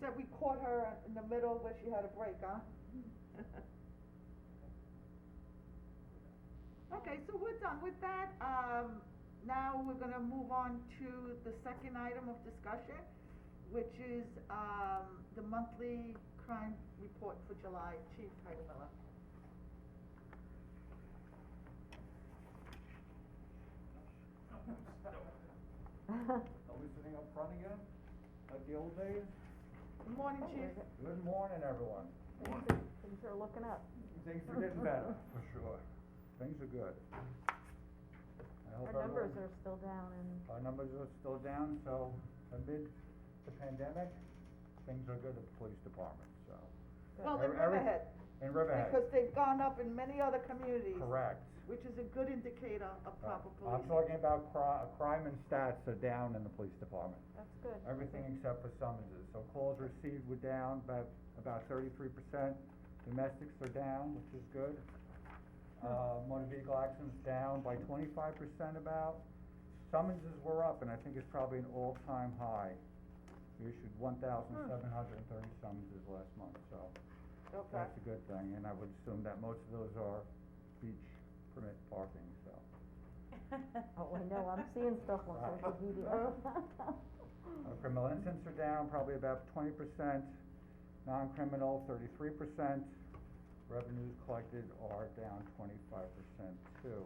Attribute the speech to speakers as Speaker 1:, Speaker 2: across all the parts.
Speaker 1: said we caught her in the middle where she had a break, huh? Okay, so we're done with that, um, now we're gonna move on to the second item of discussion, which is, um, the monthly crime report for July, Chief Heidi Miller.
Speaker 2: Are we sitting up front again, like the old days?
Speaker 1: Good morning,
Speaker 3: Oh,
Speaker 1: Chief.
Speaker 2: Good morning, everyone.
Speaker 3: Things are- Things are looking up.
Speaker 2: Things are getting better, for sure. Things are good. I hope
Speaker 3: Our numbers
Speaker 2: everyone-
Speaker 3: are still down and
Speaker 2: Our numbers are still down, so amid the pandemic, things are good at the police department, so.
Speaker 1: Well, in
Speaker 2: Every- every-
Speaker 1: Riverhead,
Speaker 2: In Riverhead.
Speaker 1: because they've gone up in many other communities.
Speaker 2: Correct.
Speaker 1: Which is a good indicator of
Speaker 2: Right.
Speaker 1: proper
Speaker 2: Uh, I'm
Speaker 1: policing.
Speaker 2: talking about cri- crime and stats are down in the police department.
Speaker 3: that's good.
Speaker 2: everything except for summonses. So calls received were down by about thirty-three percent. Domestics are down, which is good. Uh, motor vehicle accidents down by twenty-five percent about. Summonses were up, and I think it's probably an all-time high. We issued one thousand seven hundred and thirty summonses last month, so
Speaker 1: Okay,
Speaker 2: that's a good thing. And I would assume that most of those are beach permit parking, so.
Speaker 3: Oh, I know, I'm seeing stuff on social media.
Speaker 2: Uh, Criminal incidents are down probably about twenty percent, non-criminal thirty-three percent. Revenues collected are down twenty-five percent too,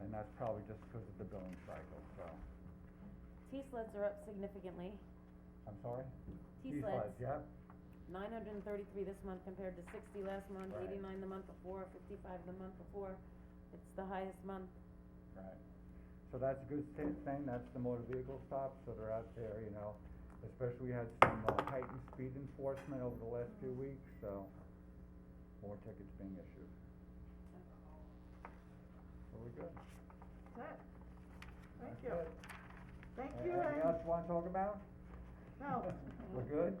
Speaker 2: and that's probably just because of the billing cycle, so,
Speaker 4: T sleds are up significantly.
Speaker 2: I'm sorry?
Speaker 4: T sleds,
Speaker 2: Yep,
Speaker 4: nine hundred and thirty-three this month compared to sixty last month,
Speaker 2: Right.
Speaker 4: eighty-nine the month before, fifty-five the month before. It's the highest month.
Speaker 2: right. So that's a good sta- thing, that's the motor vehicle stops, so they're out there, you know, especially we had some uh, heightened speed enforcement over the last few weeks, so more tickets being issued. So we're good.
Speaker 1: that's it. Thank
Speaker 2: That's
Speaker 1: you,
Speaker 2: it.
Speaker 1: thank
Speaker 2: A-
Speaker 1: you,
Speaker 2: Anything
Speaker 1: and,
Speaker 2: else you wanna talk about?
Speaker 1: no,
Speaker 2: We're good?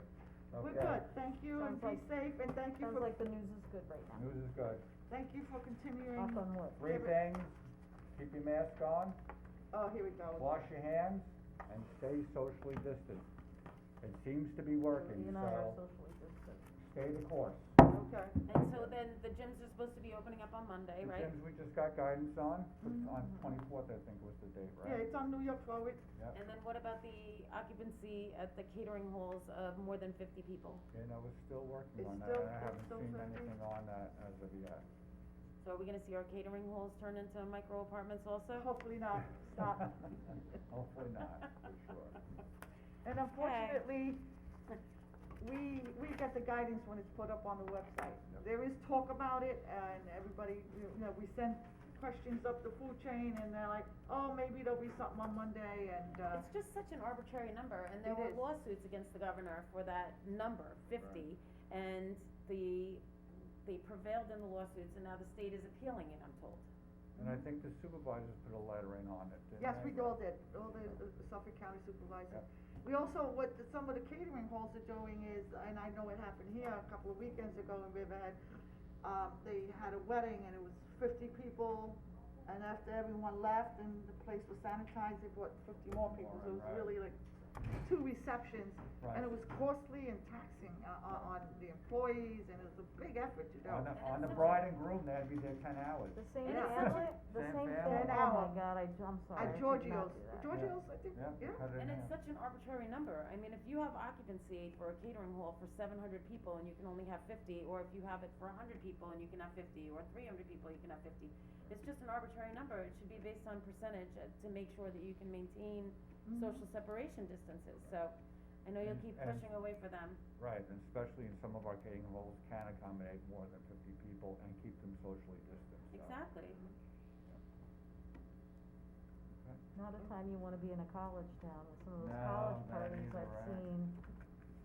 Speaker 1: we're
Speaker 2: Okay.
Speaker 1: good, thank you, and
Speaker 3: Sounds
Speaker 1: be
Speaker 3: like-
Speaker 1: safe, and thank you
Speaker 3: Sounds
Speaker 1: for,
Speaker 3: like the news is good right now.
Speaker 2: News is good.
Speaker 1: thank you for continuing.
Speaker 3: Knock on wood.
Speaker 2: Three
Speaker 1: Give it-
Speaker 2: things, keep your mask on,
Speaker 1: Oh, here we go.
Speaker 2: wash your hands, and stay socially distant. It seems to be working,
Speaker 3: You and I are
Speaker 2: so
Speaker 3: socially distant.
Speaker 2: stay the course.
Speaker 1: Okay,
Speaker 4: And so then the gyms are supposed to be opening up on Monday,
Speaker 2: The
Speaker 4: right?
Speaker 2: gyms we just got guidance on, for- on twenty-fourth, I think was the date,
Speaker 1: Mm-hmm. yeah,
Speaker 2: right?
Speaker 1: it's on New York forward,
Speaker 2: Yep,
Speaker 4: And then what about the occupancy at the catering halls of more than fifty people?
Speaker 2: and I was still working
Speaker 1: It's
Speaker 2: on that,
Speaker 1: still-
Speaker 2: and I
Speaker 1: it's
Speaker 2: haven't
Speaker 1: still
Speaker 2: seen
Speaker 1: pending.
Speaker 2: anything on that as of yet.
Speaker 4: So are we gonna see our catering halls turn into micro apartments also?
Speaker 1: hopefully not, stop.
Speaker 2: Hopefully not, for sure.
Speaker 1: And unfortunately, we, we get the guidance when it's put up on the website.
Speaker 2: Yep.
Speaker 1: There is talk about it, and everybody, you know, we send questions up the food chain, and they're like, oh, maybe there'll be something on Monday, and, uh,
Speaker 4: It's just such an arbitrary number, and
Speaker 1: It
Speaker 4: there were
Speaker 1: is.
Speaker 4: lawsuits against the governor for that number, fifty, and the, they prevailed in the lawsuits, and now the state is appealing it, I'm told.
Speaker 2: And I think the supervisors put a lettering on it, didn't
Speaker 1: Yes,
Speaker 2: they?
Speaker 1: we all did, all the uh, Suffolk County supervisors. We also, what the- some of the catering halls are doing is, and I know it happened here a couple of weekends ago in Riverhead, um, they had a wedding and it was fifty people, and after everyone left and the place was sanitized, they brought fifty more people, so it was
Speaker 2: Right.
Speaker 1: really like two receptions. And
Speaker 2: Right.
Speaker 1: it was costly and taxing, uh, on, on the employees, and it was a big effort to do.
Speaker 2: On the,
Speaker 4: And
Speaker 2: on
Speaker 4: it's
Speaker 2: the
Speaker 4: such a-
Speaker 2: bride and groom, that'd be there ten hours.
Speaker 3: The same
Speaker 1: Yeah.
Speaker 3: family, the
Speaker 2: Same
Speaker 3: same
Speaker 2: family.
Speaker 3: family,
Speaker 1: An
Speaker 3: oh my
Speaker 1: hour.
Speaker 3: god, I, I'm sorry, I
Speaker 1: At
Speaker 3: did
Speaker 1: Giorgio's,
Speaker 3: not do that.
Speaker 1: Giorgio's, I think,
Speaker 2: Yeah,
Speaker 1: yeah.
Speaker 2: cut it in
Speaker 4: And
Speaker 2: half.
Speaker 4: it's such an arbitrary number, I mean, if you have occupancy for a catering hall for seven hundred people and you can only have fifty, or if you have it for hundred people and you can have fifty, or three hundred people, you can have fifty, it's just an arbitrary number, it should be based on percentage uh, to make sure that you can maintain
Speaker 1: Mm-hmm.
Speaker 4: social separation distances, so, I know you'll
Speaker 2: And-
Speaker 4: keep
Speaker 2: and-
Speaker 4: pushing away for them.
Speaker 2: Right, and especially in some of our catering halls can accommodate more than fifty people and keep them socially distant, so.
Speaker 4: Exactly.
Speaker 3: Not a time you wanna be in a college town, with some of those
Speaker 2: No,
Speaker 3: college
Speaker 2: that
Speaker 3: parties
Speaker 2: either,
Speaker 3: I've
Speaker 2: right.
Speaker 3: seen,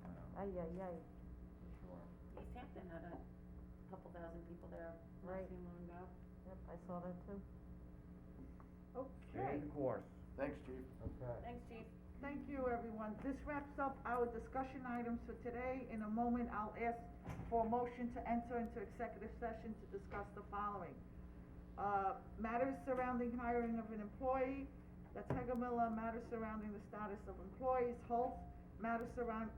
Speaker 2: Um,
Speaker 3: ay, ay, ay,
Speaker 2: Sure.
Speaker 4: East Hampton had a couple thousand people there not
Speaker 3: Right.
Speaker 4: too long ago.
Speaker 3: yep, I saw that too.
Speaker 1: Okay.
Speaker 2: Stay the course.
Speaker 5: Thanks, Chief.
Speaker 2: Okay.
Speaker 4: Thanks, Chief.
Speaker 1: Thank you, everyone. This wraps up our discussion items for today. In a moment, I'll ask for a motion to enter into executive session to discuss the following. Uh, matters surrounding hiring of an employee, that's Hegamilla, matters surrounding the status of employees, Holt, matters surround,